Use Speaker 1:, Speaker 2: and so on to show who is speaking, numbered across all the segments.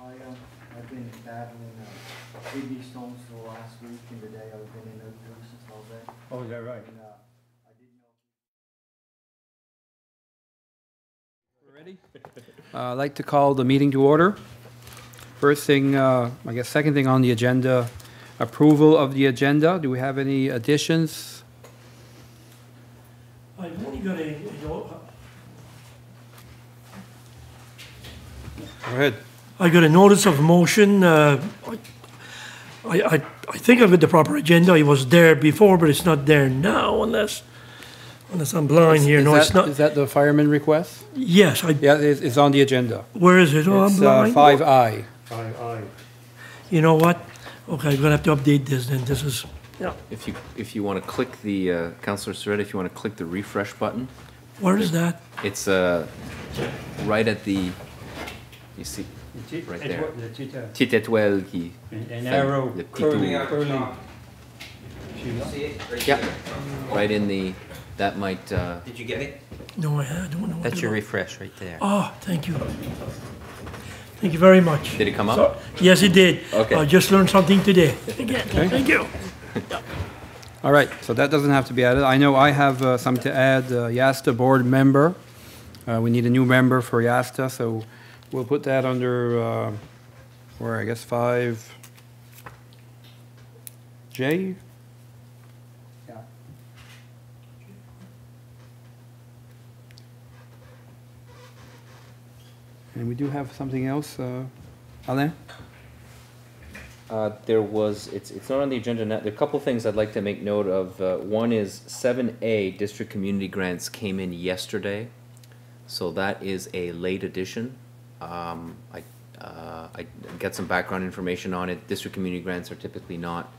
Speaker 1: um, been battling uh, kidney stones for the last week and today I've been in a nuisance all day.
Speaker 2: Oh, is that right?
Speaker 1: And, uh, I didn't know.
Speaker 3: Uh, I'd like to call the meeting to order. First thing, uh, I guess, second thing on the agenda, approval of the agenda. Do we have any additions?
Speaker 4: I've only got a, a no-
Speaker 3: Go ahead.
Speaker 4: I got a notice of motion. uh, I, I, I think I've got the proper agenda. It was there before, but it's not there now unless, unless I'm blind here.
Speaker 3: Is
Speaker 4: No, it's
Speaker 3: that-
Speaker 4: not.
Speaker 3: Is that the fireman request?
Speaker 4: Yes, I,
Speaker 3: Yeah, it's, it's on the agenda.
Speaker 4: where is it? Oh, I'm
Speaker 3: It's uh,
Speaker 4: blind.
Speaker 3: five I.
Speaker 4: You know what? Okay, I'm gonna have to update this then. This is,
Speaker 5: If you, if you want to click the, uh, Counselor Soretta, if you want to click the refresh button,
Speaker 4: where is that?
Speaker 5: it's uh, right at the, you see, Right there. petit étoile qui...
Speaker 2: An
Speaker 5: fait
Speaker 2: arrow
Speaker 5: le petit
Speaker 2: curling,
Speaker 5: tour.
Speaker 2: curling.
Speaker 5: Yeah, right in the, that might, uh,
Speaker 6: Did you get it?
Speaker 4: No, I I don't know. what
Speaker 6: That's
Speaker 4: to
Speaker 6: your
Speaker 4: do.
Speaker 6: refresh right there.
Speaker 4: Oh, thank you. Thank you very much.
Speaker 5: did it come up?
Speaker 4: Yes, it did.
Speaker 5: Okay.
Speaker 4: I just learned something today. Again, thank you.
Speaker 3: All right, so that doesn't have to be added. I know I have uh, something to add, uh, Yasta board member. Uh, We need a new member for Yasta, so we'll put that under, uh, where, I guess, 5J?
Speaker 1: Yeah.
Speaker 3: And we do have something else, uh, Alain?
Speaker 5: Uh, There was, it's, it's not on the agenda now, there are a couple things I'd like to make note of. Uh, One is seven A, district community grants came in yesterday, so that is a late addition. Um, I, uh, I got some background information on it, district community grants are typically not,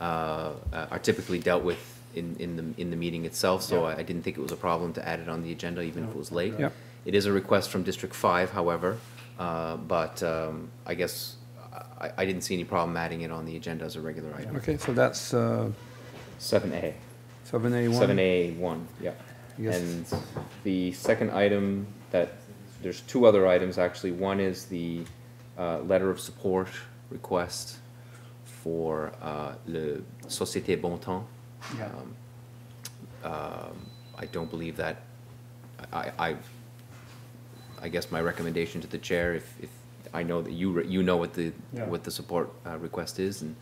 Speaker 5: uh, uh, are typically dealt with in, in the, in the meeting itself, so I I didn't think it was a problem to add it on the agenda, even if it was late.
Speaker 3: Yep.
Speaker 5: It is a request from District Five, however, uh, but um, I guess I, I didn't see any problem adding it on the agenda as a regular item.
Speaker 3: Okay, so that's uh,
Speaker 5: Seven A,
Speaker 3: 7A1.
Speaker 5: seven A one, yeah.
Speaker 3: Yes.
Speaker 5: And the second item that, there's two other items actually. One is the uh, letter of support request for uh, le Société Bon Temps.
Speaker 1: Yeah.
Speaker 5: Um, um, I don't believe that, I, I, I guess my recommendation to the chair, if, if, I know that you, re- you know what the,
Speaker 1: Yeah.
Speaker 5: what the support uh, request is, and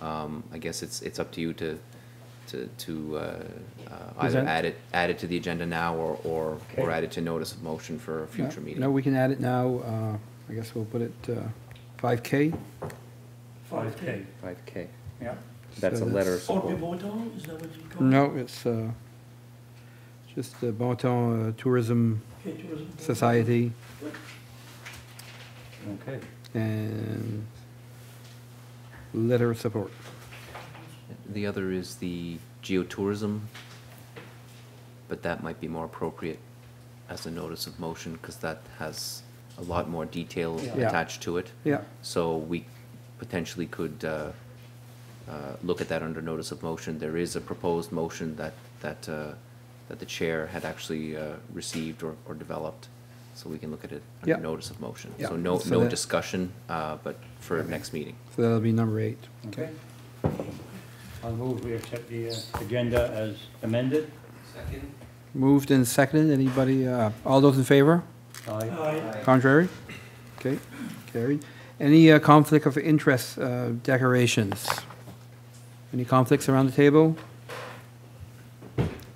Speaker 5: um, I guess it's, it's up to you to, to, to uh, uh, either
Speaker 3: Present.
Speaker 5: add it, add it to the agenda now, or, or, or add it to notice of motion for a future
Speaker 3: No,
Speaker 5: meeting.
Speaker 3: No, we can add it now. Uh, I guess we'll put it uh, 5K.
Speaker 4: Five K.
Speaker 5: Five K,
Speaker 1: Yeah.
Speaker 5: that's
Speaker 3: So
Speaker 5: a letter of
Speaker 4: Or
Speaker 5: support.
Speaker 4: Pivotal, is that what you call it?
Speaker 3: No, it's uh, just the Bon Temps uh, Tourism
Speaker 4: Okay, tourism board.
Speaker 3: Society,
Speaker 2: Okay.
Speaker 3: and letter of support.
Speaker 5: The other is the geotourism, but that might be more appropriate as a notice of motion, because that has a lot more detail
Speaker 3: Yeah.
Speaker 5: attached to it.
Speaker 3: Yeah,
Speaker 5: So we potentially could uh, uh, look at that under notice of motion. There is a proposed motion that, that, uh, that the chair had actually uh, received or, or developed, so we can look at it
Speaker 3: Yeah.
Speaker 5: under notice of motion.
Speaker 3: Yeah.
Speaker 5: So no,
Speaker 3: So
Speaker 5: no
Speaker 3: that-
Speaker 5: discussion, uh, but for next meeting.
Speaker 3: so that'll be number eight.
Speaker 2: Okay. I'll move we accept the uh, agenda as amended.
Speaker 3: Moved and seconded. Anybody, uh, all those in favor?
Speaker 2: Aye.
Speaker 4: Aye.
Speaker 3: Contrary? Okay, carried. Any uh, conflict of interest uh, declarations? Any conflicts around the table?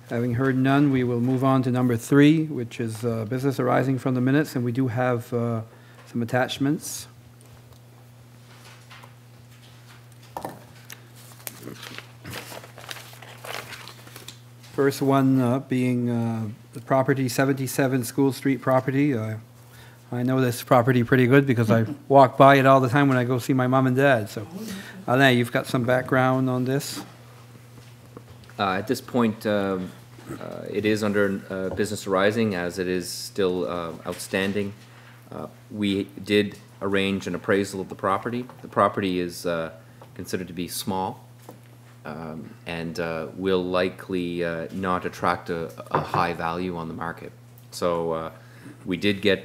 Speaker 3: Having heard none, we will move on to number three, which is uh, business arising from the minutes, and we do have uh, some attachments. First one uh, being uh, the property 77 School Street property. Uh, I know this property pretty good because I walk by it all the time when I go see my mom and dad, so. Alain, you've got some background on this?
Speaker 5: Uh, At this point, um, uh, it is under uh, business arising, as it is still uh, outstanding. Uh, We did arrange an appraisal of the property. The property is uh, considered to be small um, and uh, will likely uh, not attract a a high value on the market. So uh, we did get